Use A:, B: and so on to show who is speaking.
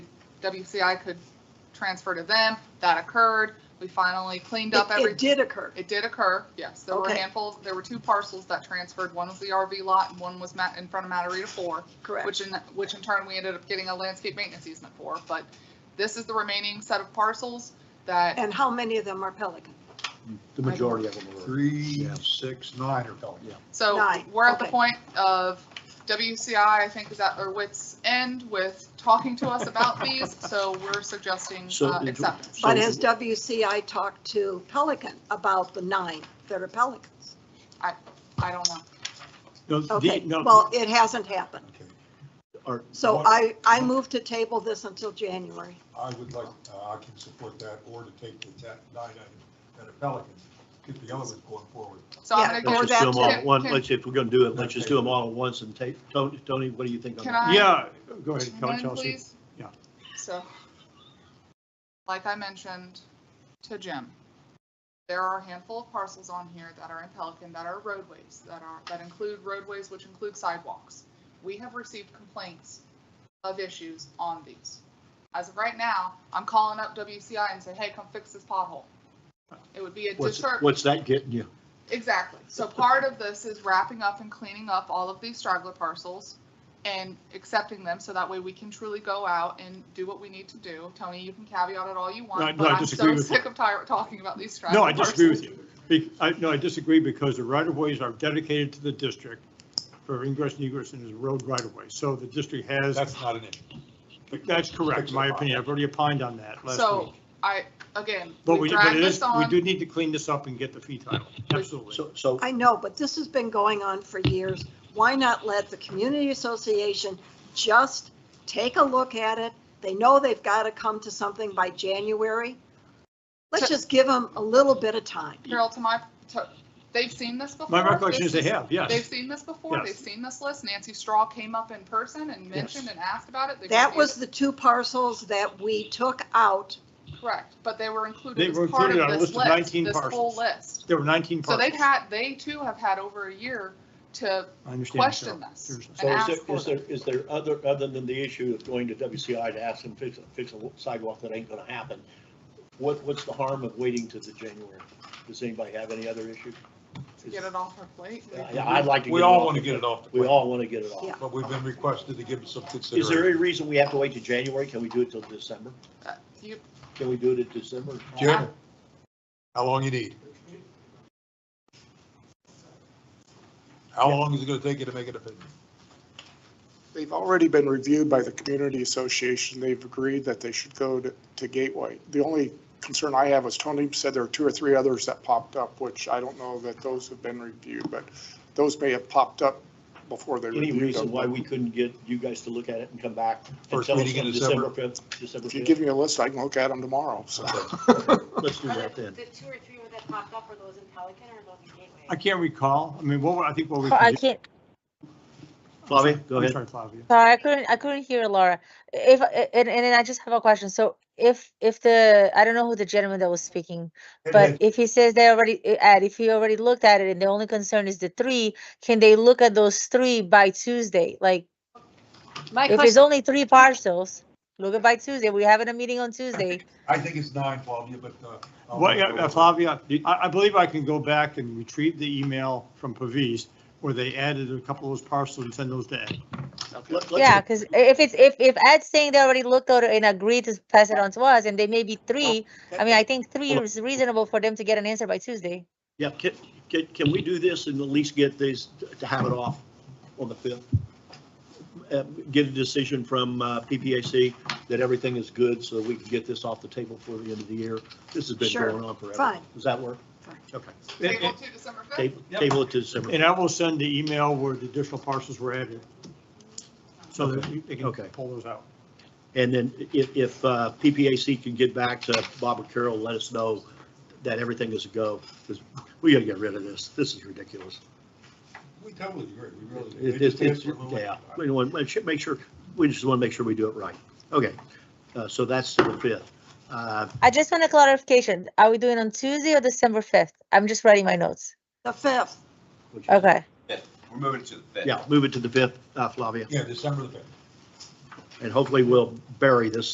A: WCI could transfer to them. That occurred. We finally cleaned up
B: It-
A: every.
B: It did occur.
A: It did occur, yes. There were a
B: Okay.
A: handful, there were two parcels that transferred. One was the RV lot and one was ma- in front of Matarita Four,
B: Correct.
A: which in, which in turn, we ended up getting a landscape maintenance easement for. But this is the remaining set of parcels that,
B: And how many of them are Pelican?
C: The majority of them were.
D: Three,
C: Yeah.
D: six, nine or something.
C: Yeah.
A: so
B: Nine,
A: we're at the
B: okay.
A: point of WCI, I think, is at their wits' end with talking to us about these. So we're suggesting
C: So-
A: uh, acceptance.
C: so-
B: But has WCI talked to Pelican about the nine that are Pelicans?
A: I don't know.
C: No, the-
B: Okay,
C: no,
B: well, it hasn't happened.
C: are-
B: So
C: what-
B: I, I move to table this until January.
D: I would like, uh, I can support that or to take the ta- nine item at a Pelican, get the other ones going forward.
A: So I'm
B: Yeah,
A: going to
B: or
C: Let's
A: go
C: just do them all at
A: Can-
C: once,
A: can-
C: let's, if we're gonna do it, let's just do them all at once and take, Tony, Tony, what do you think on
A: Can
C: that?
A: I-
C: Yeah, go ahead,
A: One,
C: Coach Chelsea.
A: please?
C: Yeah.
A: So, like I mentioned to Jim, there are a handful of parcels on here that are in Pelican that are roadways, that are, that include roadways, which include sidewalks. We have received complaints of issues on these. As of right now, I'm calling up WCI and say, hey, come fix this pothole. It would be a
C: What's,
A: disservice.
C: what's that getting you?
A: Exactly. So part of this is wrapping up and cleaning up all of these straggler parcels and accepting them so that way we can truly go out and do what we need to do. Tony, you can caveat it all you
E: No, I-
A: want,
E: no,
A: but
E: I
A: I'm
E: disagree
A: so
E: with you.
A: sick of tired talking about these straggler
E: No, I
A: parcels.
E: disagree with you. Be- I, no, I disagree because the right-of-ways are dedicated to the district for ingress and egress and is a road right-of-way. So the district has,
D: That's not an issue.
E: that's correct, in my opinion. I've already opined on that last
A: So
E: week.
A: I, again,
E: But
A: we
E: we, but
A: dragged
E: it is,
A: this
E: we
A: on.
E: do need to clean this up and get the fee title. Absolutely.
C: So, so,
B: I know, but this has been going on for years. Why not let the community association just take a look at it? They know they've got to come to something by January. Let's just give them a little bit of time.
A: Carol, to my, to, they've seen this before.
E: My recollection is
A: This
E: they have,
A: They've
E: yes.
A: seen this before.
E: Yes.
A: They've seen this list. Nancy Straw came up in person and mentioned and asked about it. They
B: That
A: reviewed
B: was
A: it.
B: the two parcels that we took out.
A: Correct, but they were
E: They
A: included
E: were
A: as part
E: included
A: of
E: on a
A: this
E: list of
A: list,
E: 19
A: this whole
E: parcels.
A: list.
E: There were 19
A: So
E: parcels.
A: they've had, they too have had over a year to
E: I understand.
A: question
E: Cheryl.
A: this
E: Seriously.
A: and
C: so is
A: ask
C: there,
A: for
C: is there,
A: them.
C: is there other, other than the issue of going to WCI to ask them to fix, fix a sidewalk that ain't gonna happen? What, what's the harm of waiting to the January? Does anybody have any other issue?
A: Get it off our plate.
C: Yeah, I'd like to.
D: We
C: it
D: all
C: off
D: want to
C: the-
D: get it off the
C: We
D: plate,
C: all want to get it off.
B: Yeah.
D: but we've been requested to give it some
C: Is there any
D: consideration.
C: reason we have to wait to January? Can we do it till December?
A: Uh, you-
C: Can we do it in December?
D: Jim, how long you need? How long is it going to take you to make an opinion?
F: They've already been reviewed by the community association. They've agreed that they should go to, to Gateway. The only concern I have is Tony said there are two or three others that popped up, which I don't know that those have been reviewed, but those may have popped up before they
C: Any
F: reviewed
C: reason
F: them.
C: why we couldn't get you guys to look at it and come back? and
D: First
C: tell us
D: meeting in
C: on
D: December.
C: fifth, December
F: If you give
C: fifth.
F: me a list, I can look at them tomorrow, so.
C: Let's do
G: Are
C: that
G: The
C: then.
G: the two or three that popped up, were those in Pelican or those in Gateway?
E: I can't recall. I mean, what, I think what we.
H: Oh, I
E: could do-
H: can't,
C: Flavia, go
E: I'm
C: ahead.
E: sorry, Flavia.
H: sorry, I couldn't, I couldn't hear Laura. If, and, and then I just have a question. So if, if the, I don't know who the gentleman that was speaking, but if he says they already, uh, Ed, if he already looked at it and the only concern is the three, can they look at those three by Tuesday? Like,
B: My
H: if it's only three parcels, look at by Tuesday. We're having a meeting on Tuesday.
D: I think it's nine, Flavia, but. uh, I'll-
E: Well, yeah, uh, Flavia, I, I believe I can go back and retrieve the email from Pavis where they added a couple of those parcels and send those to Ed.
C: Let- let's-
H: Yeah, because if it's, if, if Ed's saying they already looked at it and agreed to pass it on to us and they may be three, I mean, I think three
C: Hold
H: is reasonable for them to get an answer by Tuesday.
C: Yeah, can, can, can we do this and at least get these, to have it off on the fifth? Uh, Get a decision from uh, PPAC that everything is good so we can get this off the table for the end of the year. This has been
B: Sure,
C: going on forever.
B: fine.
C: Does that work?
B: Fine.
C: Okay.
A: Table to December 5th?
C: Table table it to December.
E: And I will send the email where the additional parcels were added. So that you- they can
C: Okay.
E: pull those out.
C: And then if, if uh, PPAC can get back to Bob or Carol, let us know that everything is a go, because we gotta get rid of this. This is ridiculous.
D: We totally agree, we really. do. They
C: It-
D: just
C: It's, it's,
D: asked for a little-
C: yeah, we want, we should make sure, we just want to make sure we do it right. Okay, uh, so that's to the fifth. Uh,
H: I just want a clarification. Are we doing on Tuesday or December 5th? I'm just writing my notes.
B: The fifth,
C: which-
H: Okay.
I: We're moving to the fifth.
C: Yeah, move it to the fifth, uh, Flavia,
D: Yeah, December the fifth.
C: and hopefully we'll bury this